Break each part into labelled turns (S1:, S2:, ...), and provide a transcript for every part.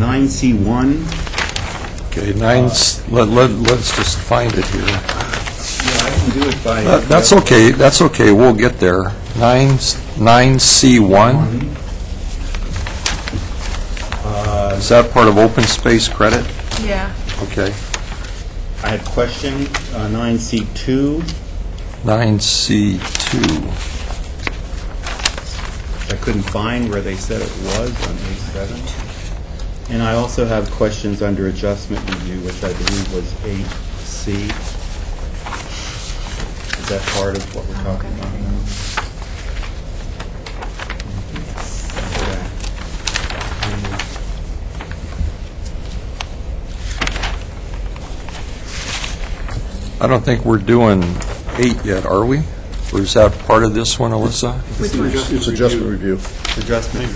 S1: 9C1,
S2: Okay, nine, s- let, let, let's just find it here.
S1: Yeah, I can do it by...
S3: Uh,
S2: That- That's okay, that's okay, we'll get there. Nine, s- nine C one, Uh, is that part of open space credit?
S4: Yeah.
S2: Okay.
S1: I had question, uh, 9C2,
S2: Nine C two,
S1: I couldn't find where they said it was on page 7. And I also have questions under adjustment review, which I believe was 8C. Is that part of what we're talking about now? Okay. Um,
S2: I don't think we're doing eight yet, are we? Or is that part of this one, Alyssa?
S3: It's adjustment review.
S1: Adjustment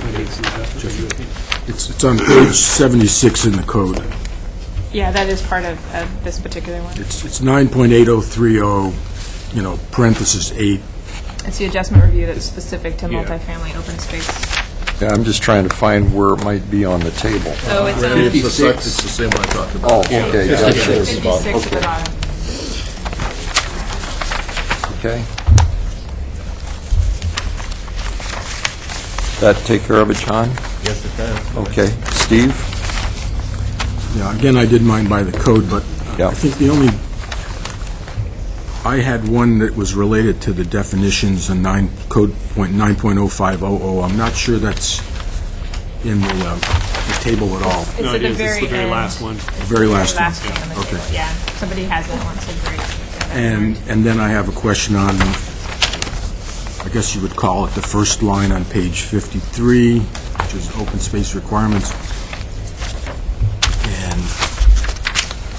S3: It's it's on page 76 in the code.
S4: Yeah, that is part of, of this particular one.
S3: It's it's 9.8030, you know, parenthesis 8.
S4: It's the adjustment review that's specific to multifamily open space.
S2: Yeah, I'm just trying to find where it might be on the table.
S4: So it's on
S3: It's the- it's the
S5: same one I talked about.
S2: Oh, okay, gotcha,
S4: 56 at the bottom.
S2: okay. That take care of it, John?
S1: Yes, it does.
S2: Okay, Steve?
S3: Yeah, again, I did mine by the code, but
S2: Yeah.
S3: I think the only, I had one that was related to the definitions in 9, code point 9.0500. I'm not sure that's in the uh, the table at all.
S4: It's
S6: No,
S4: at
S6: it
S4: the
S6: is. It's
S4: very
S6: the very
S4: end.
S6: last one.
S4: It's
S3: Very
S4: the
S3: last one.
S4: on the
S3: Okay.
S4: table, yeah. Somebody has that one, so great.
S3: And, and then I have a question on, I guess you would call it the first line on page 53, which is open space requirements. And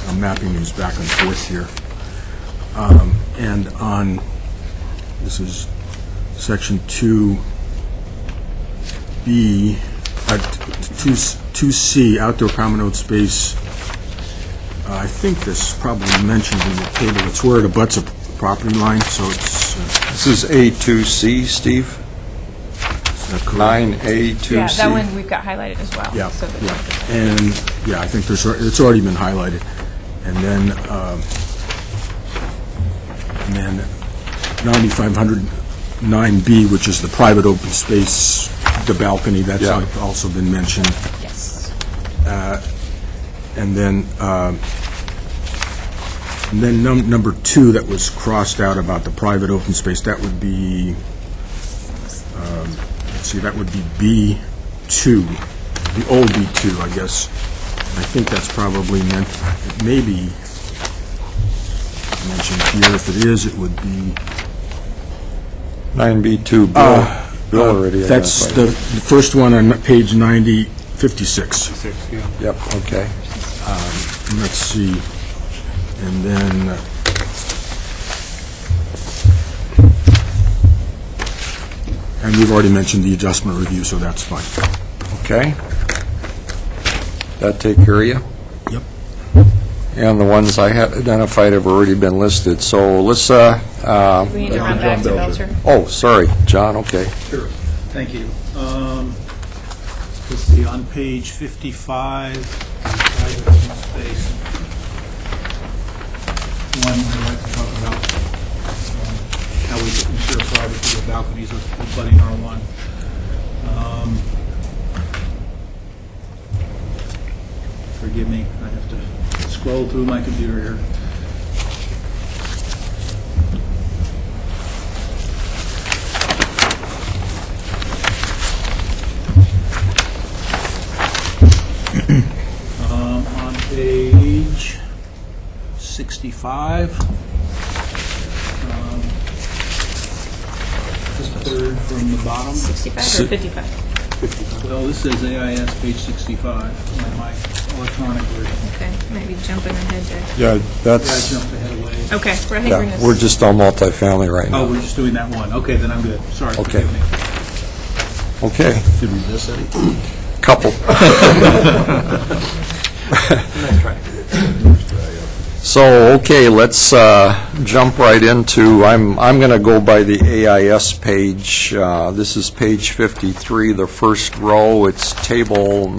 S3: I'm mapping these back and forth here. Um, And on, this is section 2B, uh, t- 2 2C, outdoor common open space Uh, I think this is probably mentioned in the table, it's where it abuts a property line, so it's, uh,
S2: This is A2C, Steve?
S3: is that correct?
S2: 9A2C?
S4: Yeah, that one we've got highlighted as well.
S3: Yeah,
S4: So the-
S3: yeah, and, yeah, I think there's, al- it's already been highlighted. And then, um, and then 9509B, which is the private open space, the balcony, that's
S2: Yeah.
S3: al- also been mentioned.
S4: Yes.
S3: And then, um, and then num- number two that was crossed out about the private open space, that would be, um, let's see, that would be B2, the old B2, I guess. I think that's probably meant, it may be mentioned here. If it is, it would be...
S2: 9B2, Bill, Bill already
S3: That's
S2: identified.
S3: the the first one on page 90, 56.
S6: Six, yeah.
S2: Yep, okay.
S3: Let's see, and then... uh, And we've already mentioned the adjustment review, so that's fine.
S2: Okay. That take care of you?
S3: Yep.
S2: And the ones I had identified have already been listed, so Alyssa, uh,
S4: We need to run back to Belcher.
S2: oh, sorry, John, okay.
S7: Sure, thank you. Um, Let's see, on page 55, private open space, one I'd like to talk about, um, how we ensure privacy of balconies with budding R1. Um, Forgive me, I have to scroll through my computer here. Um, On page 65, um, just third from the bottom.
S4: 65 or 55?
S7: Well, this says AIS page 65 on my electronic version.
S4: Okay, might be jumping ahead there.
S2: Yeah,
S7: Yeah, I
S2: that's,
S7: jumped ahead a ways.
S4: Okay, we're, I think we're in
S2: yeah,
S4: this.
S2: we're just on multifamily right
S7: Oh,
S2: now.
S7: we're just doing that one. Okay, then I'm good. Sorry.
S2: Okay.
S7: forgive me.
S2: Okay,
S7: Did we miss any?
S2: couple. So, okay, let's uh, jump right into, I'm, I'm going to go by the AIS page. Uh, This is page 53, the first row, it's table